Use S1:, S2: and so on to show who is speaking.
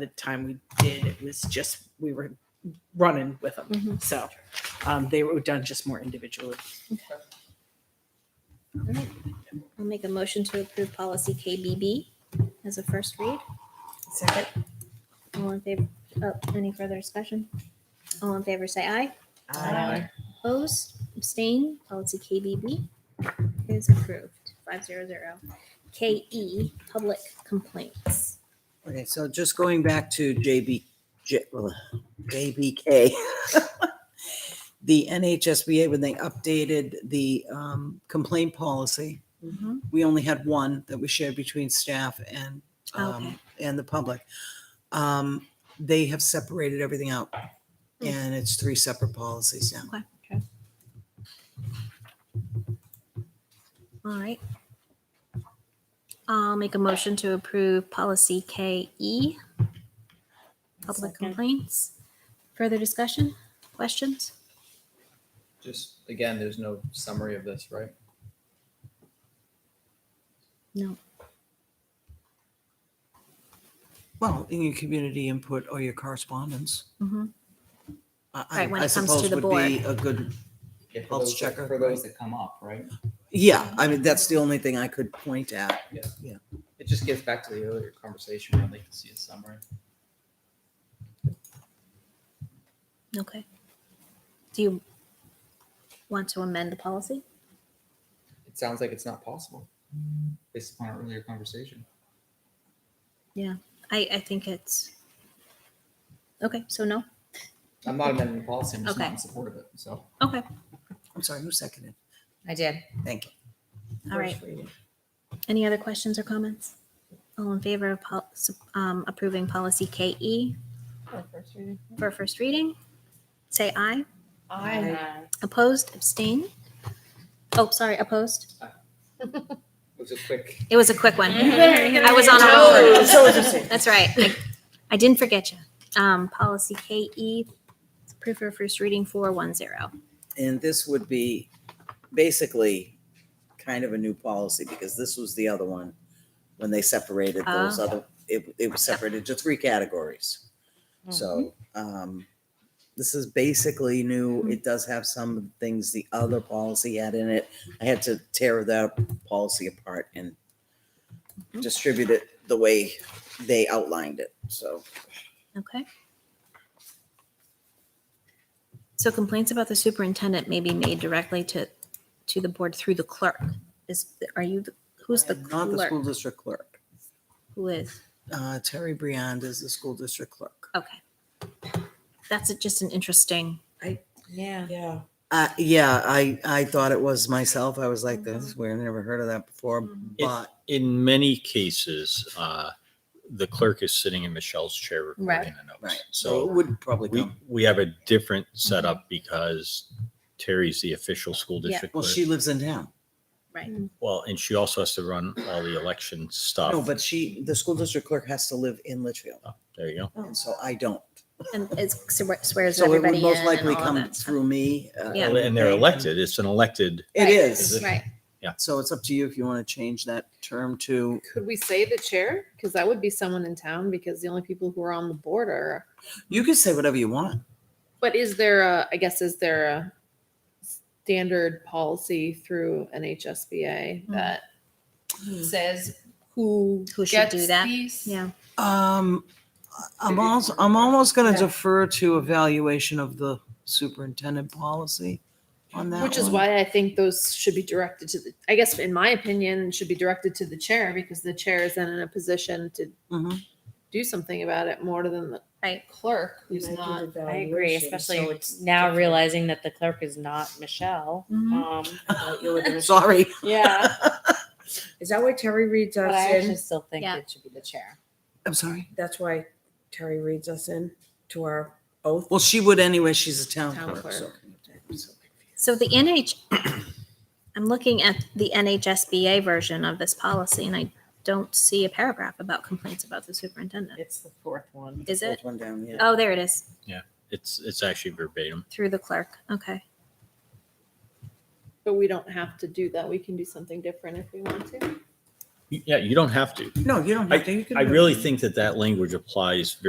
S1: the time we did, it was just we were running with them.
S2: Mhm.
S1: So um, they were done just more individually.
S2: I'll make a motion to approve policy KBB as a first read.
S3: Second.
S2: All in favor, oh, any further discussion? All in favor, say aye.
S3: Aye.
S2: Oppose, abstain, policy KBB is approved, five zero zero. KE, public complaints.
S4: Okay, so just going back to JB, J- ugh, JBK. The NHSBA, when they updated the um, complaint policy,
S1: Mhm.
S4: we only had one that we shared between staff and,
S2: Okay.
S4: um, and the public. Um, They have separated everything out.
S2: Hmm.
S4: And it's three separate policies now.
S2: All right. I'll make a motion to approve policy KE, public
S3: Second.
S2: complaints. Further discussion, questions?
S5: Just, again, there's no summary of this, right?
S2: No.
S4: Well, in your community input or your correspondence,
S2: Mhm.
S4: I- I
S2: Right, when
S4: I
S2: it comes to
S4: suppose
S2: the
S4: would be a good,
S5: Yeah, for
S4: Pulse
S5: those that-
S4: checker.
S5: For those that come up, right?
S4: yeah, I mean, that's the only thing I could point at.
S5: It just gets back to the earlier conversation, I'd like to see a summary.
S2: Okay. Do you want to amend the policy?
S5: It sounds like it's not possible, based upon our earlier conversation.
S2: I, I think it's, okay, so no?
S5: I'm not amending the policy, I'm just not
S2: Okay.
S5: in support of it, so.
S2: Okay,
S4: I'm sorry, who seconded?
S3: I did.
S4: Thank you.
S2: all right.
S1: First reading.
S2: Any other questions or comments? All in favor of pol- sup- um, approving policy KE for first reading? Say aye.
S3: Aye.
S2: Opposed, abstain? Oh, sorry, opposed?
S5: It was a quick,
S2: It was a quick one.
S3: Mhm.
S2: I was on a roll.
S1: Oh, so it's the
S2: That's right. I- I didn't forget you. Um, policy KE, it's approved for first reading, 410.
S4: And this would be basically kind of a new policy because this was the other one when they separated those
S2: Ah.
S4: other, it, it was separated to three categories. So,
S2: Mm-hmm.
S4: um, this is basically new. It does have some things the other policy had in it. I had to tear that policy apart and
S2: Mhm.
S4: distribute it the way they outlined it, so.
S2: Okay. So complaints about the superintendent may be made directly to, to the board through the clerk. Is, are you, the- who's the
S4: Not the school
S2: clerk?
S4: district clerk.
S2: Who is?
S4: Uh, Terry Briand is the school district clerk.
S2: Okay. That's a- just an interesting,
S3: Yeah.
S1: Yeah.
S4: Uh, yeah, I, I thought it was myself. I was like, this is
S2: Mm-hmm.
S4: weird. I never heard of that before,
S2: Mhm.
S6: It-
S4: but
S6: in many cases, uh, the clerk is sitting in Michelle's chair recording the notes.
S4: Right. so it
S6: So
S4: would probably
S6: we,
S4: come.
S6: we have a different
S2: Mm-hmm.
S6: setup because Terry's the official school
S2: Yeah.
S6: district.
S4: Well,
S6: clerk.
S4: she lives in town.
S2: right?
S6: Well, and she also has to run all the election stuff.
S4: No, but she, the school district clerk has to live in Litchfield.
S6: Oh, There you go.
S4: And so I don't.
S2: And it swear- swears
S4: So it
S2: everybody
S4: would
S2: in
S4: most
S2: and
S4: likely
S2: all of
S4: come
S2: that stuff.
S4: through me. uh,
S2: Yeah.
S6: And they're elected. It's an elected,
S4: It is.
S6: Is
S2: Right,
S4: So it's up to you if you want to change that term to,
S7: Could we say the chair? Because that would be someone in town because the only people who are on the board are,
S4: you can say whatever you want.
S7: but is there a, I guess, is there a standard policy through NHSBA
S2: Hmm.
S7: that
S4: Hmm.
S7: says who
S2: Who should do
S7: gets
S2: that?
S7: these?
S2: yeah.
S4: Um, I'm also, I'm almost going to defer to evaluation of the superintendent policy on that
S7: Which is
S4: one.
S7: why I think those should be directed to the, I guess, in my opinion, should be directed to the chair because the chair is then in a position to
S4: Mhm.
S7: do something about it more than the
S2: Mm-hmm. Right.
S7: clerk
S1: We
S7: who's
S1: might do
S7: not.
S3: I agree,
S1: evaluation, so
S3: especially
S1: it's
S3: now
S1: different. Mm-hmm.
S3: realizing that the clerk is not Michelle.
S2: Mhm.
S3: Um,
S1: Like, you're looking at-
S4: Sorry.
S3: yeah,
S1: Is that why Terry reads
S3: but I
S1: us in?
S3: actually still think
S2: Yeah.
S3: it should be the chair.
S4: I'm sorry.
S1: That's why Terry reads us in to our oath.
S4: Well, she would anyway. She's a town
S7: Town
S4: clerk. so-
S2: So the NH, I'm looking at the NHSBA version of this policy and I don't see a paragraph about complaints about the superintendent.
S3: It's the fourth one.
S2: Is it?
S4: Fourth one down, yeah.
S2: Oh, there it is,
S6: it's, it's actually verbatim.
S2: through the clerk. Okay.
S7: But we don't have to do that. We can do something different if we want to.
S6: Yeah, you don't have to.
S4: No, you don't have to. You can
S6: I
S4: do it.
S6: really think that that language applies very